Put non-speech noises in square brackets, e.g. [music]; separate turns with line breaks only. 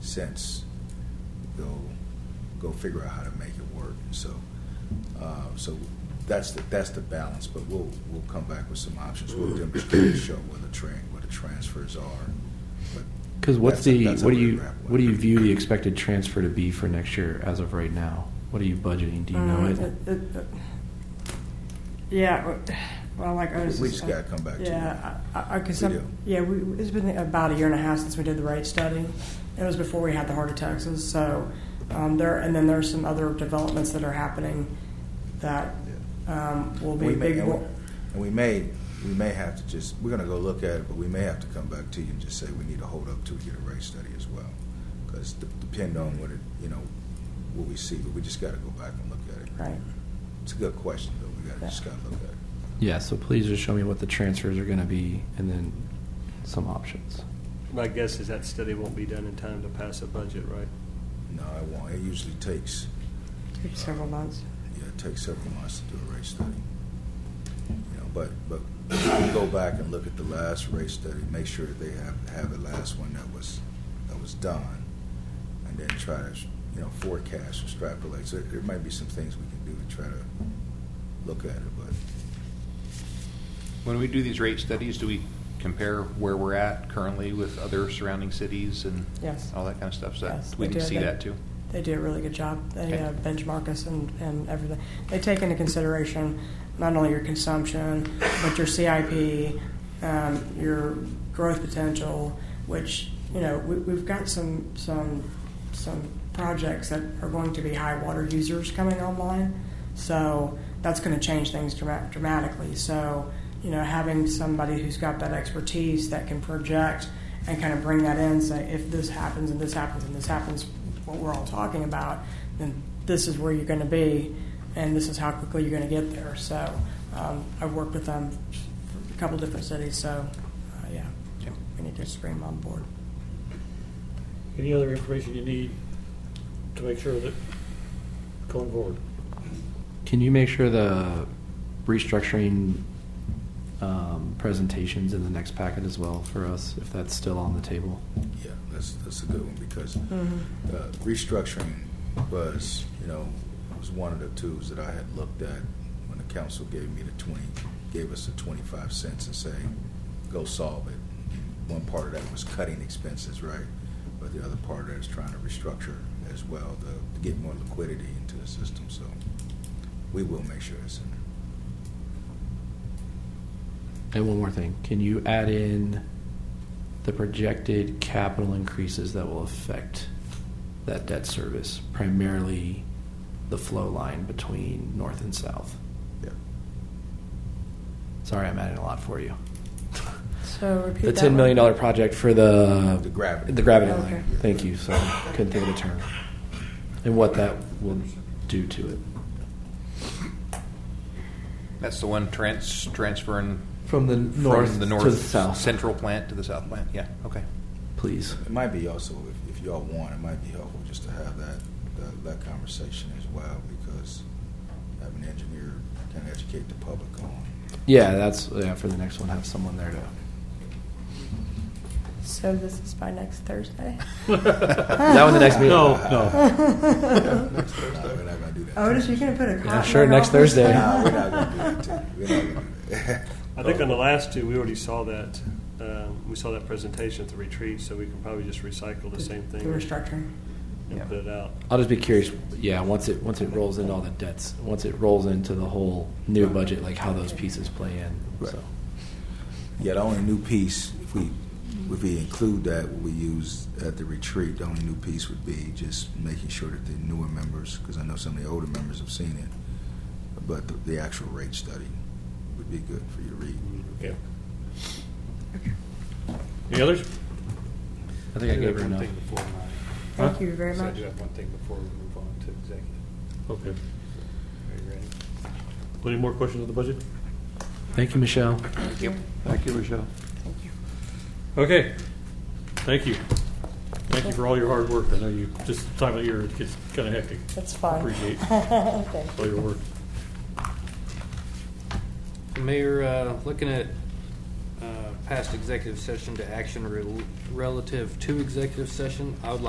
sense, they'll go figure out how to make it work. So, uh, so that's the, that's the balance, but we'll, we'll come back with some options. We'll demonstrate and show what the train, what the transfers are. But
Because what's
That's a-
the,
that's a
what do
really
you,
wrap it
what do you
up.
view the expected transfer to be for next year as of right now? What are you budgeting? Do you know
Uh,
it?
it- it- it- Yeah, uh, well, like I was.
we just gotta come back to
Yeah,
that.
I, I, I- cause
We
some-
do.
yeah, we, it's been about a year and a half since we did the rate study. It was before we had the heart attacks, so, um, there, and then there's some other developments that are happening that, um, will be
We may,
big.
and we-
wo-
and we may, we may have to just, we're gonna go look at it, but we may have to come back to you and just say we need to hold up till we get a rate study as well. Because depend on what it, you know, what we see, but we just gotta go back and look at it.
Right.
It's a good question, though, we gotta, just gotta look at it.
Yeah, so please just show me what the transfers are going to be and then some options.
My guess is that study won't be done in time to pass a budget, right?
No, I won't, it usually takes,
Several months.
yeah, it takes several months to do a rate study. You know, but, but we go back and look at the last rate study, make sure that they have, have the last one that was, that was done, and then try to, you know, forecast, extrapolate. So there might be some things we can do to try to look at it, but
When we do these rate studies, do we compare where we're at currently with other surrounding cities and
Yes.
all that kind of stuff? So
Yes,
we
we
need to
do.
see
They-
that too.
They do a really good job. They
Okay.
uh, benchmark us and, and everything. They take into consideration not only your consumption, but your CIP, um, your growth potential, which, you know, we, we've got some, some, some projects that are going to be high water users coming online. So that's going to change things dra- dramatically. So, you know, having somebody who's got that expertise that can project and kind of bring that in, say, if this happens and this happens and this happens, what we're all talking about, then this is where you're going to be, and this is how quickly you're going to get there. So um, I've worked with them for a couple different cities, so uh, yeah,
Okay.
we need to just bring them on board.
Any other information you need to make sure that going forward?
Can you make sure the restructuring um, presentations in the next packet as well for us, if that's still on the table?
Yeah, that's, that's a good one, because uh, restructuring was, you know, was one of the tools that I had looked at when the council gave me the twenty, gave us the twenty-five cents and say, go solve it. One part of that was cutting expenses, right? But the other part of that is trying to restructure as well, to to get more liquidity into the system, so we will make sure that's in there.
And one more thing, can you add in the projected capital increases that will affect that debt service, primarily the flow line between north and south?
Yeah.
Sorry, I'm adding a lot for you.
So repeat
The ten million dollar project for the
The gravity.
the gravity
Okay.
line. Thank you. So couldn't think of the term, and what that will do to it
That's the one trans, transferring
from the north
from the
to
north
the south.
central plant to the south plant. Yeah, okay.
please.
It might be also, if, if y'all want, it might be helpful just to have that, that, that conversation as well, because having an engineer kind of educate the public on.
Yeah, that's yeah for the next one. Have someone there to.
So this is by next [laughs] Thursday.
[laughs] that one the next
[laughs]
meeting.
No, no.
No, we're not gonna do that.
Otis, you gonna put a cotton
sure,
in
next
office?
Thursday.
No, we're not gonna do that. We're not gonna do that.
I
Oh.
think on the last two, we already saw that, um, we saw that presentation at the retreat, so we can probably just recycle the same
The
thing
restructuring.
Yeah.
and put it out.
I'll just be curious. Yeah, once it once it rolls into all the debts, once it rolls into the whole new budget, like how those pieces play in. So
Yeah, the only new piece, if we, if we include that, what we use at the retreat, the only new piece would be just making sure that the newer members, because I know some of the older members have seen it, but the, the actual rate study would be good for you to read.
Okay. Any others?
I think I gave her enough.
Thank you very much.
have one thing before we move on to executive.
Okay.
Are you ready?
Any more questions on the budget?
Thank you, Michelle.
Thank you, Michelle.
Okay. Thank you. Thank you for all your hard work. I know you, this time of year, it gets kind of hectic.
That's fine. [laughs]
Appreciate
Thank
all your work.
Mayor, uh, looking at uh, past executive session to action rel- relative to executive session, I would like